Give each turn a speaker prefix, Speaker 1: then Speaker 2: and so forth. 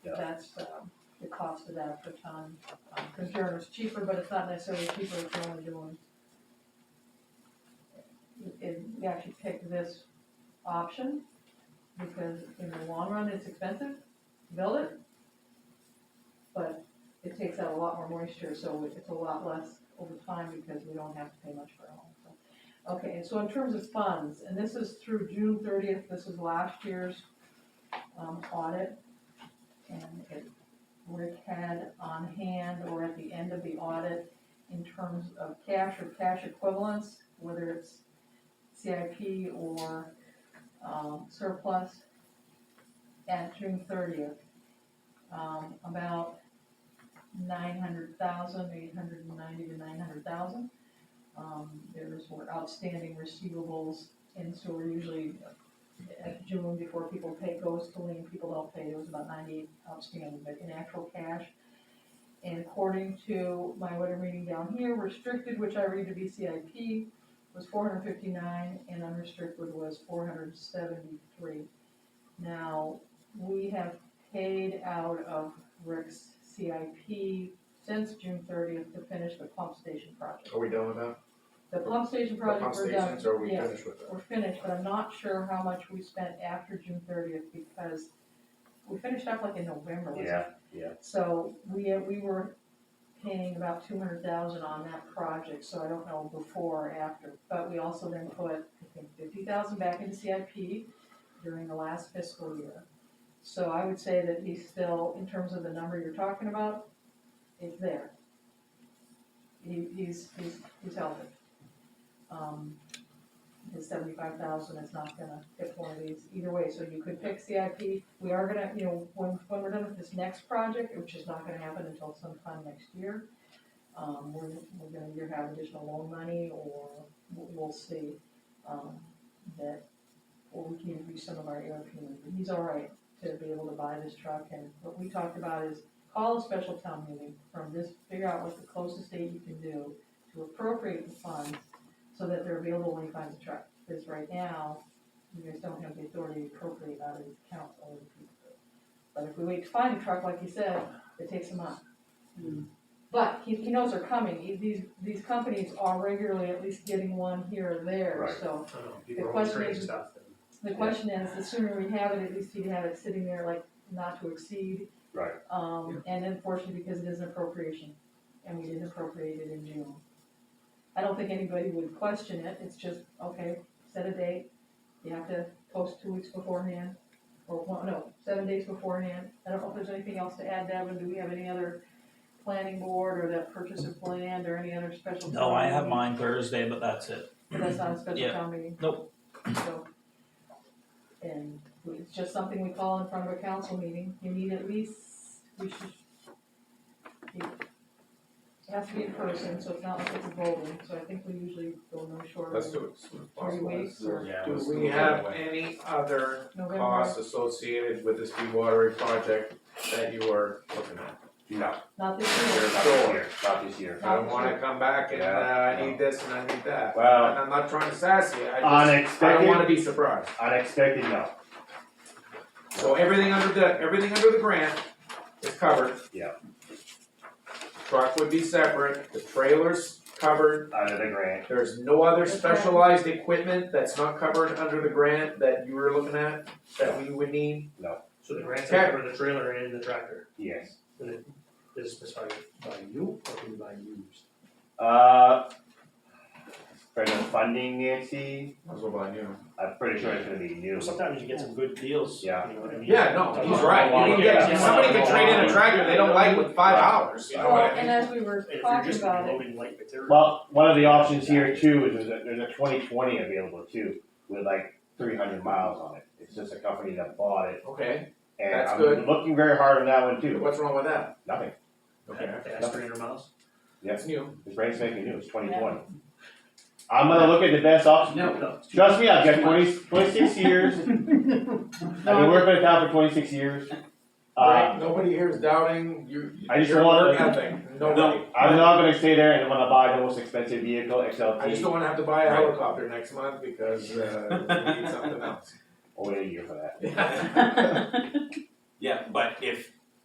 Speaker 1: that's, uh, the cost of that per ton. Um, cause yours is cheaper, but it's not necessarily cheaper if you're only doing. It, we actually picked this option, because in the long run, it's expensive to build it. But it takes out a lot more moisture, so it's a lot less over time because we don't have to pay much for it all, so. Okay, and so in terms of funds, and this is through June thirtieth, this is last year's, um, audit. And it, Rick had on hand or at the end of the audit in terms of cash or cash equivalents, whether it's CIP or, um, surplus at June thirtieth. Um, about nine hundred thousand, eight hundred and ninety to nine hundred thousand. Um, there's were outstanding receivables, and so we're usually at June before people pay, goes to lien, people don't pay, there was about ninety outstanding, but in actual cash. And according to my, what I'm reading down here, restricted, which I read to be CIP, was four hundred fifty-nine, and unrestricted was four hundred seventy-three. Now, we have paid out of Rick's CIP since June thirtieth to finish the pump station project.
Speaker 2: Are we done with that?
Speaker 1: The pump station
Speaker 2: The pump
Speaker 1: project, we're done,
Speaker 2: stations, are we
Speaker 1: yes,
Speaker 2: finished with that?
Speaker 1: we're finished, but I'm not sure how much we spent after June thirtieth, because we finished up like in November, wasn't it?
Speaker 3: Yeah, yeah.
Speaker 1: So we, we were paying about two hundred thousand on that project, so I don't know before or after, but we also then put, I think, fifty thousand back into CIP during the last fiscal year. So I would say that he's still, in terms of the number you're talking about, it's there. He, he's, he's, he's healthy. Um, his seventy-five thousand is not gonna hit one of these either way, so you could pick CIP. We are gonna, you know, when, when we're done with this next project, which is not gonna happen until sometime next year, um, we're, we're gonna either have additional loan money or we'll, we'll see, um, that, or we can use some of our ARP. money. But He's all right to be able to buy this truck, and what we talked about is call a special town meeting from this, figure out what the closest date you can do to appropriate the funds so that they're available when he finds a truck. Because right now, you guys don't have the authority to appropriate out of these accounts all the people do. But if we wait to find a truck, like you said, it takes a month. But he, he knows they're coming, He- these, these companies are regularly at least getting one here or there,
Speaker 3: Right.
Speaker 1: so.
Speaker 4: I don't know,
Speaker 1: The
Speaker 4: people are
Speaker 1: question
Speaker 4: ordering
Speaker 1: is-
Speaker 4: stuff and.
Speaker 1: The question is, the sooner we have it, at least you can have it sitting there like not to exceed.
Speaker 3: Right.
Speaker 1: Um, and unfortunately, because it is an appropriation, and we didn't appropriate it in June. I don't think anybody would question it, it's just, okay, set a date, you have to post two weeks beforehand, or, one- no, seven days beforehand. I don't know if there's anything else to add, Devin, do we have any other planning board, or that purchase of land, or any other special?
Speaker 5: No, I have
Speaker 1: town meeting?
Speaker 5: mine Thursday, but that's it.
Speaker 1: But that's not a special
Speaker 5: Yeah.
Speaker 1: town meeting?
Speaker 5: Nope.
Speaker 1: So. And it's just something we call in front of a council meeting, you need at least, we should. It has to be in person, so it's not like it's a voting, so I think we usually go no shorter
Speaker 2: Let's
Speaker 1: than
Speaker 2: do it as soon as
Speaker 1: three
Speaker 2: possible.
Speaker 1: weeks or
Speaker 3: Yeah.
Speaker 2: Let's
Speaker 4: Do
Speaker 2: do
Speaker 4: we
Speaker 2: it
Speaker 4: have
Speaker 2: anyway.
Speaker 4: any other,
Speaker 1: November,
Speaker 2: Costs associated with this dewatering project that you are looking at?
Speaker 3: No,
Speaker 1: not this year.
Speaker 3: not this year, not this year.
Speaker 2: I don't wanna come back and, uh, I need this and I need that, and
Speaker 3: Well-
Speaker 2: I'm not trying to sass you, I just, I don't wanna
Speaker 3: Unexpected,
Speaker 2: be surprised.
Speaker 3: unexpected, no.
Speaker 2: So everything under the, everything under the grant is covered.
Speaker 3: Yeah.
Speaker 2: Truck would be separate, the trailer's covered,
Speaker 3: Out of the grant,
Speaker 2: there's no other
Speaker 1: Okay.
Speaker 2: specialized equipment that's not covered under the grant that you were looking at, that we would need.
Speaker 4: so the grants
Speaker 2: Okay.
Speaker 4: are for the trailer and the tractor,
Speaker 3: yes.
Speaker 4: this is by, by you or can you buy used?
Speaker 3: Uh, for the funding, Nancy,
Speaker 2: Might as well buy new.
Speaker 3: I'm pretty sure it's gonna be new.
Speaker 4: Sometimes you get some good deals, you
Speaker 3: Yeah.
Speaker 4: know what I mean?
Speaker 2: Yeah, no, he's right, you can get, somebody could trade in a tractor they don't like with five hours, you know what I
Speaker 1: Well,
Speaker 2: mean?
Speaker 1: and as we were
Speaker 4: If you're
Speaker 1: talking
Speaker 4: just
Speaker 1: about it,
Speaker 4: loading light material.
Speaker 3: Well, one of the options here too is there's a, there's a twenty twenty available too, with like three hundred miles on it. It's just a company that bought it,
Speaker 2: Okay,
Speaker 3: and
Speaker 2: That's
Speaker 3: I'm
Speaker 2: good.
Speaker 3: looking very hard on that one too.
Speaker 2: what's wrong with that?
Speaker 3: Nothing,
Speaker 2: Okay,
Speaker 4: That's three hundred miles.
Speaker 2: that's new.
Speaker 3: this brain's making new, it's twenty twenty. I'm gonna look at the best option. Trust me, I've got 20 26 years. I've been working at town for twenty-six years. Uh,
Speaker 2: Right, nobody here is doubting, you,
Speaker 3: I just
Speaker 2: you're
Speaker 3: wanna-
Speaker 2: nothing, nobody.
Speaker 3: no, I'm not gonna stay there and wanna buy the most expensive vehicle,
Speaker 2: I just
Speaker 3: XLT,
Speaker 2: don't wanna have to buy a
Speaker 3: Right.
Speaker 2: helicopter next month because, uh, we need something else.
Speaker 3: I'll wait a year for that.
Speaker 2: Yeah.
Speaker 6: Yeah, but if